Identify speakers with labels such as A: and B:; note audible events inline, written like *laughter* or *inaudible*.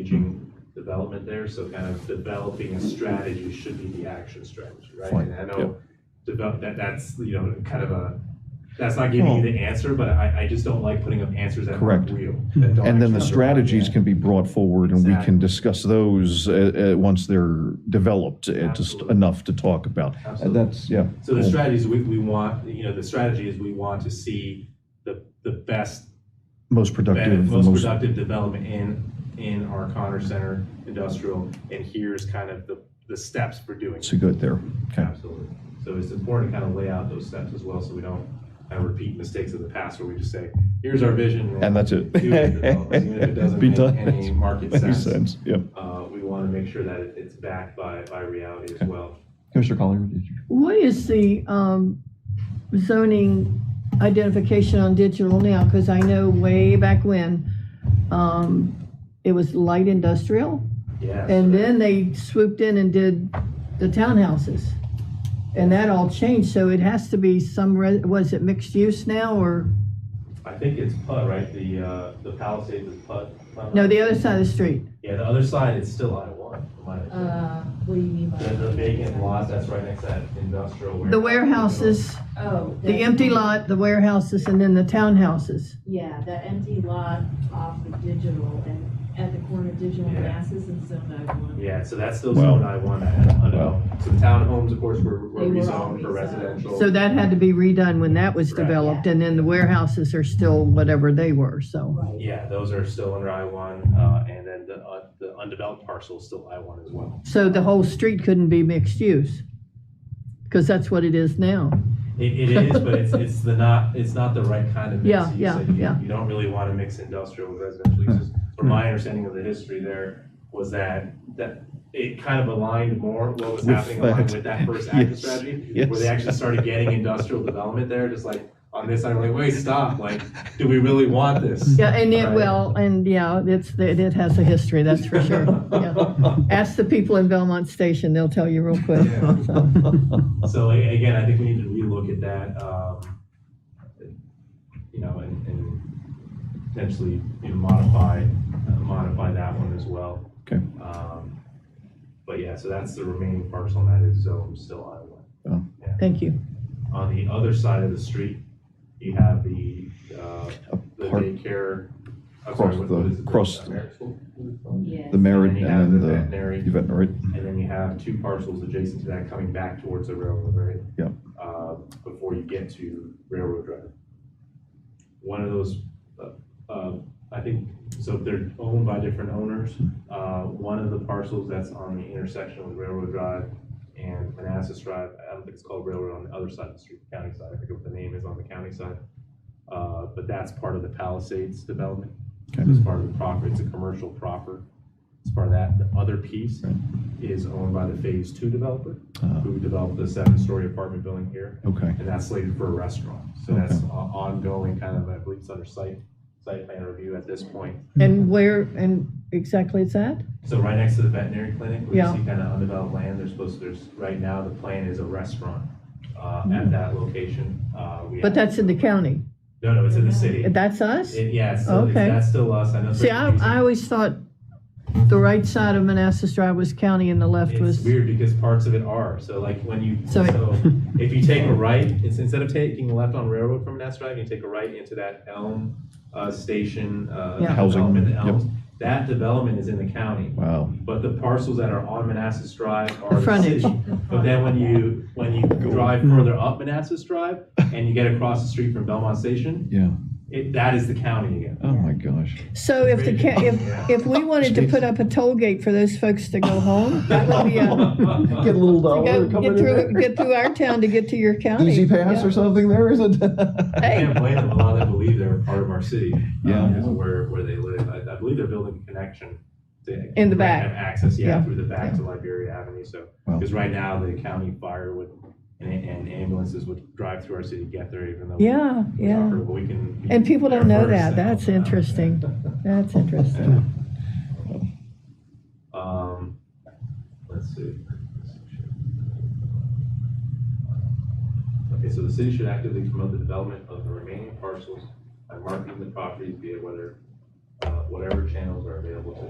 A: engaging development there, so kind of developing a strategy should be the action strategy, right?
B: Fine,
A: And I
B: yep.
A: know develop, that, that's, you know, kind of a, that's not giving you the answer, but I, I just don't like putting up answers that aren't
B: Correct.
A: real.
B: And then the strategies can be brought forward and we can
A: Exactly.
B: discuss those uh, uh, once they're developed, uh, just
A: Absolutely.
B: enough to talk about. And
A: Absolutely.
B: that's, yeah.
A: So the
B: cool.
A: strategies we, we want, you know, the strategy is we want to see the, the best,
B: Most
A: benef-
B: productive, the
A: most
B: most,
A: productive development in, in our Connor Center industrial, and here's kind of the, the steps for doing. it.
B: so good there. Okay,
A: Absolutely. So it's important to kind of lay out those steps as well, so we don't kind of repeat mistakes of the past where we just say, here's our vision.
B: And that's it.
A: do it, develop it,
B: *laughs*
A: Even if it doesn't
B: Be
A: make
B: done.
A: any market
B: makes
A: sense,
B: sense, yeah.
A: uh, we want to make sure that it- it's backed by, by reality as well.
B: Commissioner Collier, did you?
C: What is the um, zoning identification on digital now? Because I know way back when, um, it was light industrial,
A: Yeah.
C: and
A: so-
C: then they swooped in and did the townhouses. And that all changed, so it has to be some, re- was it mixed use now, or,
A: I think it's PUD, right? The, uh, the Palisades is PUD.
C: no, the other side of the street?
A: Yeah, the other side is still I one, from my understanding.
D: Uh, what do you mean by?
A: The, the vacant lot that's right next to that industrial warehouse.
C: The warehouses,
D: Oh.
C: the empty lot, the warehouses, and then the townhouses.
D: Yeah, that empty lot off of Digital and at the corner of Digital
A: Yeah.
D: and Masses and Zone 91.
A: Yeah, so that's still
B: Wow.
A: zone I one. I
B: Wow.
A: know. So the townhomes, of course, were, were
D: They were all
A: rezoned for
D: rezoned.
A: residential.
C: So that had to be redone when that was
A: Right.
C: developed, and then the warehouses are still whatever they were, so.
D: Right.
A: Yeah, those are still under I one, uh, and then the, uh, the undeveloped parcel is still I one as well.
C: So the whole street couldn't be mixed use, because that's what it is now.
A: It, it is, but
C: *laughs*
A: it's, it's the not, it's not the right kind of mix.
C: Yeah,
A: use.
C: yeah,
A: Like, you-
C: yeah. Hmm.
A: You don't really want to mix industrial with residential uses. From my understanding of the history there was that, that it kind of aligned more what was
B: With
A: happening aligned
B: that.
A: with that first action
B: Yes,
A: strategy,
B: yes.
A: where they actually started getting industrial development there, just like on this, I'm like, wait, stop, like, do we really want this?
C: Yeah, and it
A: Right.
C: will, and yeah, it's, it it has a history, that's for sure. Yeah.
A: *laughs*
C: Ask the people in Belmont Station, they'll tell you real quick.
A: Yeah.
C: so.
A: So a- again, I think we need to relook at that, um, you know, and, and potentially, you know, modify, uh, modify that one as well.
B: Okay.
A: Um, But yeah, so that's the remaining parcel, and that is zone still I
B: Oh.
A: one. Yeah.
C: Thank you.
A: On the other side of the street, you have the, uh, the
B: Park-
A: daycare. I'm
B: Across
A: sorry, what-
B: the-
A: what is it?
B: across the-
A: Veterinary school? And
D: Yes.
B: The merit
A: then you have the
B: and the
A: veterinary.
B: veterinary,
A: And then you have two parcels adjacent to that coming back towards the railroad, right?
B: Yep.
A: Uh, Before you get to Railroad Drive. One of those, uh, uh, I think, so they're owned by different owners. Uh, One of the parcels that's on the intersection with Railroad Drive and Manassas Drive, I don't think it's called Railroad on the other side of the street, county side, I forget what the name is on the county side. Uh, But that's part of the Palisades development.
B: Okay.
A: It's part of the proper, it's a commercial proper. It's part of that. The other piece is owned by the Phase Two developer,
B: Ah.
A: who developed the seven-story apartment building here,
B: okay.
A: and that's slated for a restaurant. So
B: Okay.
A: that's o- ongoing, kind of, I believe it's under site, site plan review at this point.
C: And where, and exactly it's at?
A: So right next to the veterinary clinic, we
C: Yeah.
A: see kind of undeveloped land, there's supposed, to- there's, right now, the plan is a restaurant uh, at that location. Uh, we
C: Mm-hmm. But
A: have-
C: that's in the county.
A: No, no, it's in the city.
C: That's us?
A: It- Yeah, it's still, it's-
C: Okay.
A: that's still us, I know. it's
C: See,
A: very
C: I,
A: confusing.
C: I always thought the right side of Manassas Drive was county and the left
A: It's
C: was.
A: weird because parts of it are. So like when you, so
C: So-
A: *laughs* if you
C: *laughs*
A: take a right, it's instead of taking a left on Railroad from Nats Drive, you take a right into that Elm uh, Station uh,
C: Yeah.
B: Housing,
A: development,
B: yep.
A: Elms. That development is in the county,
B: Wow.
A: but the parcels that are on Manassas Drive are
C: The
A: the
C: frontage.
A: city.
C: *laughs*
A: But then when you, when you drive further up Manassas Drive and you get across the street from Belmont Station,
B: Yeah.
A: it, that is the county again.
B: Oh, my gosh.
C: So if the, ca- if, if we wanted to put up a toll gate for those folks to go home, *laughs* that would
B: *laughs*
C: be a,
E: Get a little
C: to
E: dollar
C: go,
E: to come
C: get
E: in
C: through,
E: there.
C: get through our town to get to your *laughs* county.
E: Easy pass
C: Yeah.
E: or something there, is it?
B: *laughs*
A: I
C: Hey.
A: can't blame them. A lot of them believe they're a part of our city. uh,
B: Yeah.
A: Because of where, where they live. I, I believe they're building a connection to.
C: In the back.
A: Have access, yeah,
C: Yeah.
A: through the back to Liberia Avenue. So,
B: Wow.
A: because right now the county fire would, and, and ambulances would drive through our city, to get there even though. we-
C: Yeah,
A: we
C: yeah.
A: offer, but we can. be
C: And people don't
A: there
C: know
A: first and
C: that. That's
A: all that.
C: interesting. That's interesting.
A: Yeah. Um, let's see. Okay, so the city should actively promote the development of the remaining parcels by marketing the properties via whether, uh, whatever channels are available to